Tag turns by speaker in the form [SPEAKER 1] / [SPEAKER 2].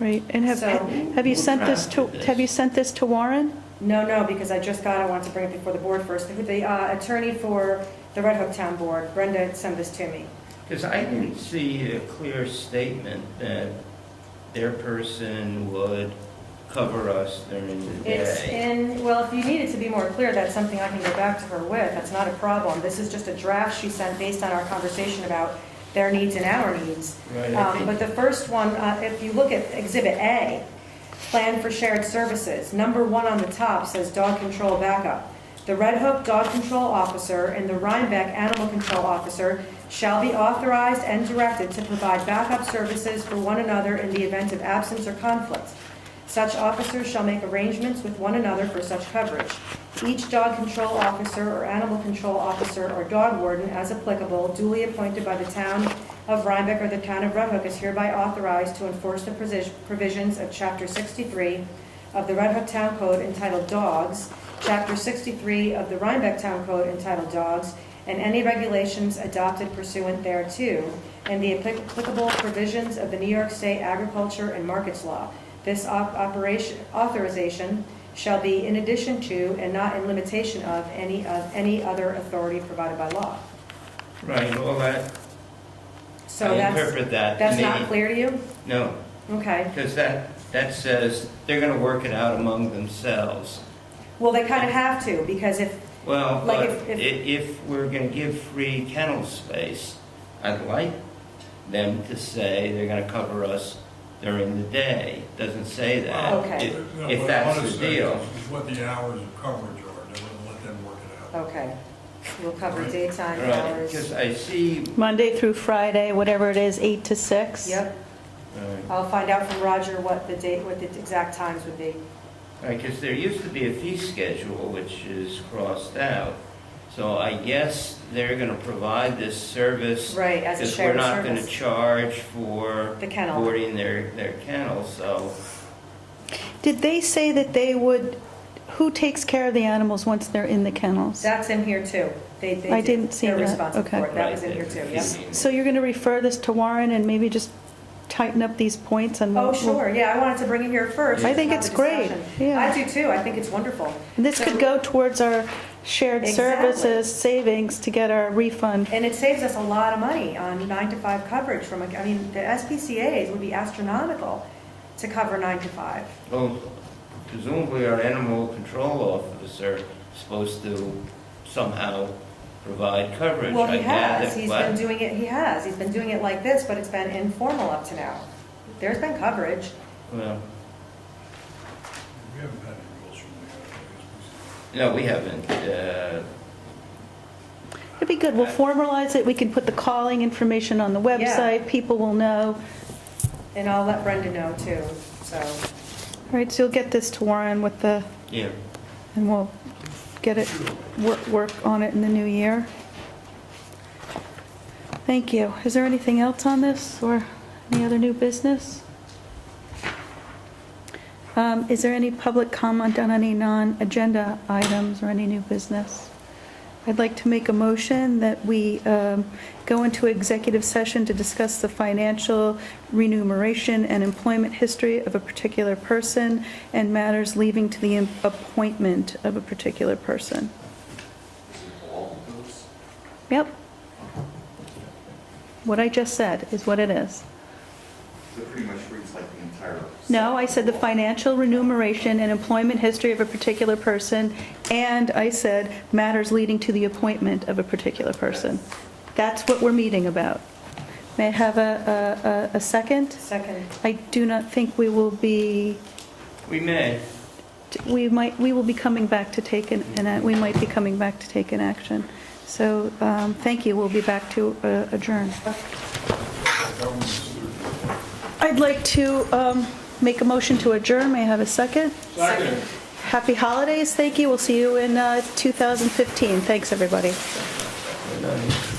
[SPEAKER 1] Right, and have,
[SPEAKER 2] So-
[SPEAKER 1] have you sent this to, have you sent this to Warren?
[SPEAKER 2] No, no, because I just got, it. I wanted to bring it before the board first. The- The uh, attorney for the Red Hook Town Board, Brenda, sent this to me.
[SPEAKER 3] Because I didn't see a clear statement that their person would cover us during the
[SPEAKER 2] It's
[SPEAKER 3] day.
[SPEAKER 2] in, well, if you need it to be more clear, that's something I can go back to her with, that's not a problem. This is just a draft she sent based on our conversation about their needs and our needs.
[SPEAKER 3] Right, I
[SPEAKER 2] Um, But
[SPEAKER 3] think,
[SPEAKER 2] the first one, uh, if you look at Exhibit A, Plan for Shared Services, number one on the top says dog control backup. The Red Hook Dog Control Officer and the Rhinebeck Animal Control Officer shall be authorized and directed to provide backup services for one another in the event of absence or conflict. Such officers shall make arrangements with one another for such coverage. Each dog control officer or animal control officer or dog warden, as applicable, duly appointed by the town of Rhinebeck or the town of Red Hook is hereby authorized to enforce the provis- provisions of Chapter 63 of the Red Hook Town Code entitled Dogs, Chapter 63 of the Rhinebeck Town Code entitled Dogs, and any regulations adopted pursuant thereto, and the applicable provisions of the New York State Agriculture and Markets Law. This op- operation, authorization shall be in addition to and not in limitation of any of any other authority provided by law.
[SPEAKER 3] right, all that,
[SPEAKER 2] So
[SPEAKER 3] I
[SPEAKER 2] that's,
[SPEAKER 3] interpret that. to
[SPEAKER 2] that's not
[SPEAKER 3] mean-
[SPEAKER 2] clear to you?
[SPEAKER 3] No,
[SPEAKER 2] Okay.
[SPEAKER 3] because that, that says they're going to work it out among themselves.
[SPEAKER 2] Well, they kind of have to, because if,
[SPEAKER 3] Well,
[SPEAKER 2] Like
[SPEAKER 3] but
[SPEAKER 2] if-
[SPEAKER 3] i- if we're going to give free kennel space, I'd like them to say they're going to cover us during the day. Doesn't say that.
[SPEAKER 2] Oh, Okay.
[SPEAKER 3] If-
[SPEAKER 4] No,
[SPEAKER 3] If
[SPEAKER 4] what I wanna
[SPEAKER 3] that's the
[SPEAKER 4] say
[SPEAKER 3] deal.
[SPEAKER 4] Is is what the hours of coverage are, they wouldn't let them work it out.
[SPEAKER 2] okay, we'll cover daytime
[SPEAKER 3] Right,
[SPEAKER 2] hours.
[SPEAKER 3] because I see,
[SPEAKER 1] Monday through Friday, whatever it is, 8 to 6?
[SPEAKER 2] Yep,
[SPEAKER 3] right,
[SPEAKER 2] I'll find out from Roger what the date, what the exact times would be.
[SPEAKER 3] because there used to be a fee schedule which is crossed out. So I guess they're going to provide this service.
[SPEAKER 2] Right, as a
[SPEAKER 3] Because we're
[SPEAKER 2] shared
[SPEAKER 3] not going to
[SPEAKER 2] service.
[SPEAKER 3] charge for
[SPEAKER 2] The kennel.
[SPEAKER 3] boarding their, their kennel, so.
[SPEAKER 1] Did they say that they would, who takes care of the animals once they're in the kennels?
[SPEAKER 2] That's in here too. They, they.
[SPEAKER 1] I
[SPEAKER 2] do-
[SPEAKER 1] didn't see
[SPEAKER 2] They're
[SPEAKER 1] that.
[SPEAKER 2] responsible
[SPEAKER 1] Okay.
[SPEAKER 2] for it. That was
[SPEAKER 3] right,
[SPEAKER 2] in here
[SPEAKER 3] there's
[SPEAKER 2] too,
[SPEAKER 3] a fee
[SPEAKER 2] yep.
[SPEAKER 3] meeting.
[SPEAKER 1] So you're going to refer this to Warren and maybe just tighten up these points and...
[SPEAKER 2] Oh,
[SPEAKER 1] we'll-
[SPEAKER 2] sure, yeah, I wanted to bring him here first.
[SPEAKER 1] I think
[SPEAKER 2] just to
[SPEAKER 1] it's
[SPEAKER 2] have the
[SPEAKER 1] great,
[SPEAKER 2] discussion.
[SPEAKER 1] yeah.
[SPEAKER 2] I do too, I think it's wonderful.
[SPEAKER 1] This could go towards our shared
[SPEAKER 2] Exactly.
[SPEAKER 1] services savings to get our refund.
[SPEAKER 2] And it saves us a lot of money on nine to five coverage from, a- I mean, the SPCA's would be astronomical to cover nine to five.
[SPEAKER 3] Well, presumably our animal control officer is supposed to somehow provide coverage.
[SPEAKER 2] Well, he
[SPEAKER 3] I gather,
[SPEAKER 2] has, he's
[SPEAKER 3] but-
[SPEAKER 2] been doing it, he has, he's been doing it like this, but it's been informal up to now. There's been coverage.
[SPEAKER 3] Well,
[SPEAKER 4] We haven't had any rules from the
[SPEAKER 3] no, we haven't, uh,
[SPEAKER 1] It'd be good, we'll formalize it, we can put the calling information on the website, people will know.
[SPEAKER 2] And I'll let Brenda know too, so.
[SPEAKER 1] All right, so you'll get this to Warren with the,
[SPEAKER 3] yeah,
[SPEAKER 1] and we'll get it, work, work on it in the new year. Thank you. Is there anything else on this, or any other new business? Um, Is there any public comment on any non-agenda items or any new business? I'd like to make a motion that we um, go into executive session to discuss the financial remuneration and employment history of a particular person and matters leading to the appointment of a particular person. Yep. What I just said is what it is.
[SPEAKER 5] That pretty much reads like the entire.
[SPEAKER 1] No, I said the financial remuneration and employment history of a particular person, and I said matters leading to the appointment of a particular person. That's what we're meeting about. May I have a, a- a, a second?
[SPEAKER 2] Second,
[SPEAKER 1] I do not think we will be,
[SPEAKER 3] we may.
[SPEAKER 1] we might, we will be coming back to take an, and we might be coming back to take an action. So, um, thank you, we'll be back to uh, adjourn.
[SPEAKER 4] government's.
[SPEAKER 1] I'd like to um, make a motion to adjourn, may I have a second?
[SPEAKER 4] Second.
[SPEAKER 1] Happy holidays, thank you, we'll see you in uh, 2015, thanks, everybody.
[SPEAKER 3] We're not-